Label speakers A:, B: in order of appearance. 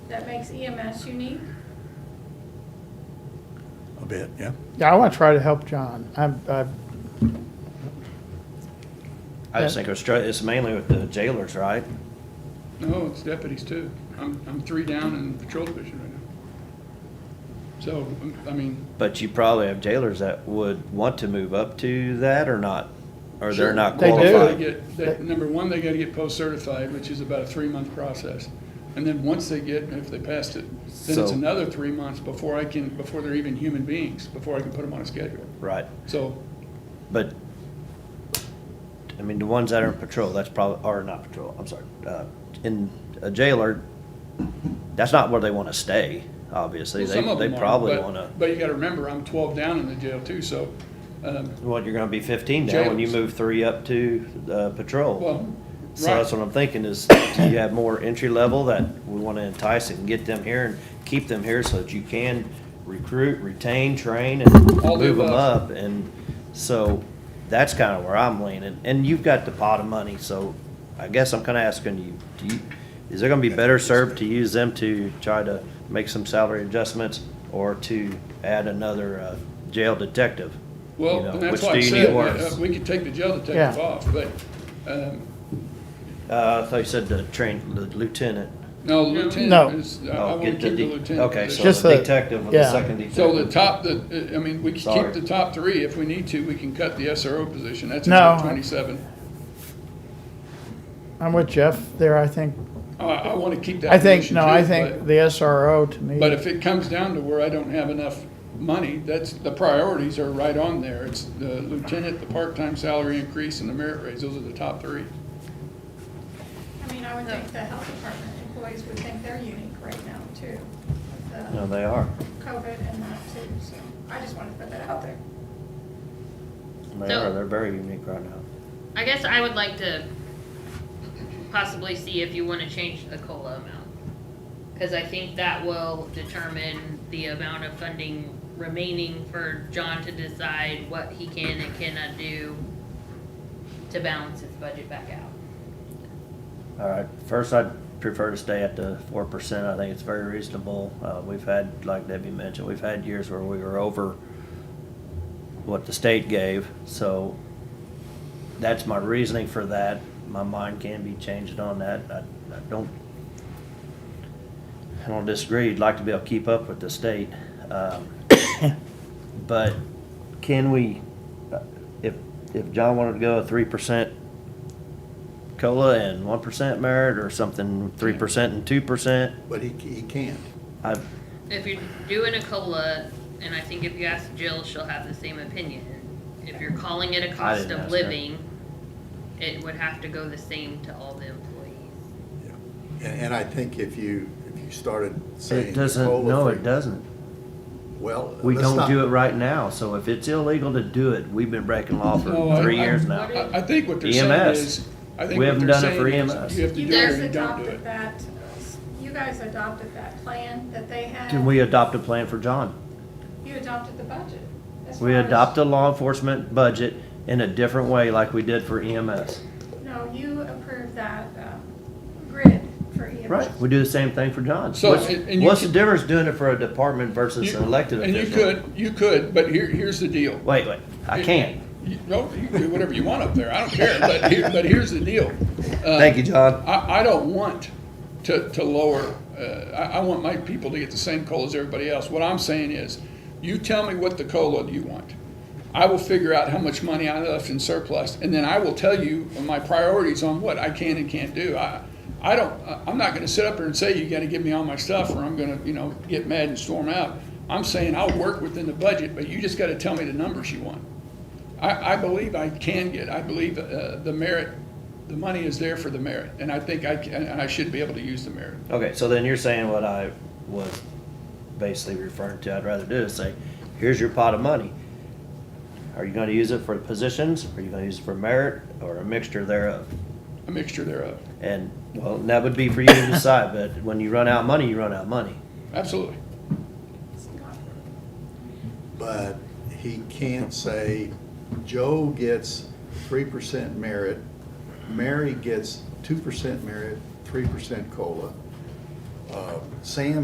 A: that makes EMS unique?
B: a bit, yeah.
C: Yeah, I want to try to help John. I'm, I,
D: I just think it's str- it's mainly with the jailers, right?
E: No, it's deputies too. I'm, I'm three down in patrol division right now. So, I mean,
D: But you probably have jailers that would want to move up to that or not, or they're not
C: They do.
E: they
D: qualified.
E: get, they, number one, they gotta get post-certified, which is about a three-month process. And then once they get, if they passed it, then it's
D: So-
E: another three months before I can, before they're even human beings, before I can put them on a schedule.
D: Right,
E: So,
D: but, I mean, the ones that are in patrol, that's probably, or not patrol, I'm sorry, uh, in a jailer, that's not where they wanna stay, obviously.
E: well,
D: They,
E: some of
D: they
E: them are,
D: probably
E: but-
D: wanna,
E: But you gotta remember, I'm twelve down in the jail too, so, um,
D: well, you're gonna be fifteen now when you
E: Jailers.
D: move three up to, uh, patrol.
E: well,
D: So
E: right.
D: that's what I'm thinking is, do you have more entry level that we want to entice and get them here and keep them here so that you can recruit, retain, train, and
E: All the
D: move them
E: above.
D: up? And so that's kind of where I'm leaning. And you've got the pot of money, so I guess I'm kind of asking you, do you, is there going to be better served to use them to try to make some salary adjustments or to add another uh, jail detective? You
E: Well,
D: know,
E: and that's
D: which
E: why
D: do
E: I
D: you
E: said,
D: need
E: uh,
D: worse?
E: we could take the jail detective
C: Yeah.
E: off, but, um,
D: Uh, I thought you said the train, the lieutenant.
E: no,
C: No.
E: lieutenant is, I- I
D: Oh,
E: want to
D: get
E: keep the
D: de-
E: lieutenant
D: Okay,
E: position.
D: so
C: Just
D: the
C: the-
D: detective with the
C: yeah.
D: second detective.
E: So the top, the, uh, I mean, we can
D: Sorry.
E: keep the top three if we need to, we can cut the SRO position, that's
C: No.
E: another twenty-seven.
C: I'm with Jeff there, I think.
E: I, I want to keep that
C: I think,
E: position
C: no, I
E: too,
C: think
E: but-
C: the SRO to me.
E: But if it comes down to where I don't have enough money, that's, the priorities are right on there. It's the lieutenant, the part-time salary increase, and the merit raise, those are the top three.
A: I mean, I would think the health department employees would think they're unique right now too. with
D: No,
A: the
D: they are.
A: COVID and that too, so I just wanted to put that out there.
D: They
F: So-
D: are. They're very unique right now.
F: I guess I would like to possibly see if you wanna change the COLA amount. Cause I think that will determine the amount of funding remaining for John to decide what he can and cannot do to balance his budget back out.
D: All right. First, I'd prefer to stay at the four percent. I think it's very reasonable. Uh, we've had, like Debbie mentioned, we've had years where we were over what the state gave. So that's my reasoning for that. My mind can be changed on that. I, I don't. I don't disagree. You'd like to be able to keep up with the state, um, but can we? uh, If if John wanted to go a three percent cola and one percent merit or something, three percent and two percent.
B: But he, he can't.
D: I,
F: If you're doing a COLA, and I think if you ask Jill, she'll have the same opinion. If you're calling it a cost
D: didn't ask
F: of
D: her.
F: living, it would have to go the same to all the employees.
B: Yeah. And, and I think if you, if you started saying.
D: it doesn't,
B: cola
D: no,
B: free-
D: it doesn't.
B: Well.
D: We
B: let's
D: don't
B: not-
D: do it right now, so if it's illegal to do it, we've been breaking law
E: No,
D: for
E: Oh, I-
D: three
E: I-
D: years
F: What
D: now.
F: is-
E: I, I think what they're saying
D: EMS.
E: is, I think
D: We
E: what
D: haven't
E: they're
D: done it for E
E: saying
D: EMS.
E: is, you have to
A: You
E: do it
A: guys
E: or you don't do it.
A: adopted that, you guys adopted that plan that they had.
D: Can we adopt a plan for John?
A: You adopted the budget. as
D: We
A: far as-
D: adopt a law enforcement budget in a different way like we did for E EMS.
A: No, you approved that um, grid for E EMS.
D: Right, we do the same thing for John.
E: So,
D: What's,
E: and- and you
D: what's the
E: could-
D: difference doing it for a department versus
E: You-
D: an elected
E: And you
D: official?
E: could, you could, but here, here's the deal.
D: Wait, wait, I can't.
E: You- No, you can do whatever you want up there, I don't care, but here, but here's the deal. Uh,
D: Thank you, John.
E: I, I don't want to, to lower, uh, I, I want my people to get the same COLA as everybody else. What I'm saying is, you tell me what the COLA you want. I will figure out how much money I left in surplus, and then I will tell you my priorities on what I can and can't do. I, I don't, I- I'm not gonna sit up here and say, you gotta give me all my stuff, or I'm gonna, you know, get mad and storm out. I'm saying I'll work within the budget, but you just gotta tell me the numbers you want. I, I believe I can get, I believe uh, the merit, the money is there for the merit, and I think I can, and I should be able to use the merit.
D: Okay, so then you're saying what I was basically referring to, I'd rather do is say, here's your pot of money. Are you gonna use it for positions, are you gonna use it for merit, or a mixture thereof?
E: A mixture thereof,
D: And, well, that would be for you to decide, but when you run out of money, you run out of money.
E: absolutely.
A: It's not-
B: But he can't say, Joe gets three percent merit, Mary gets two percent merit, three percent cola. uh, Sam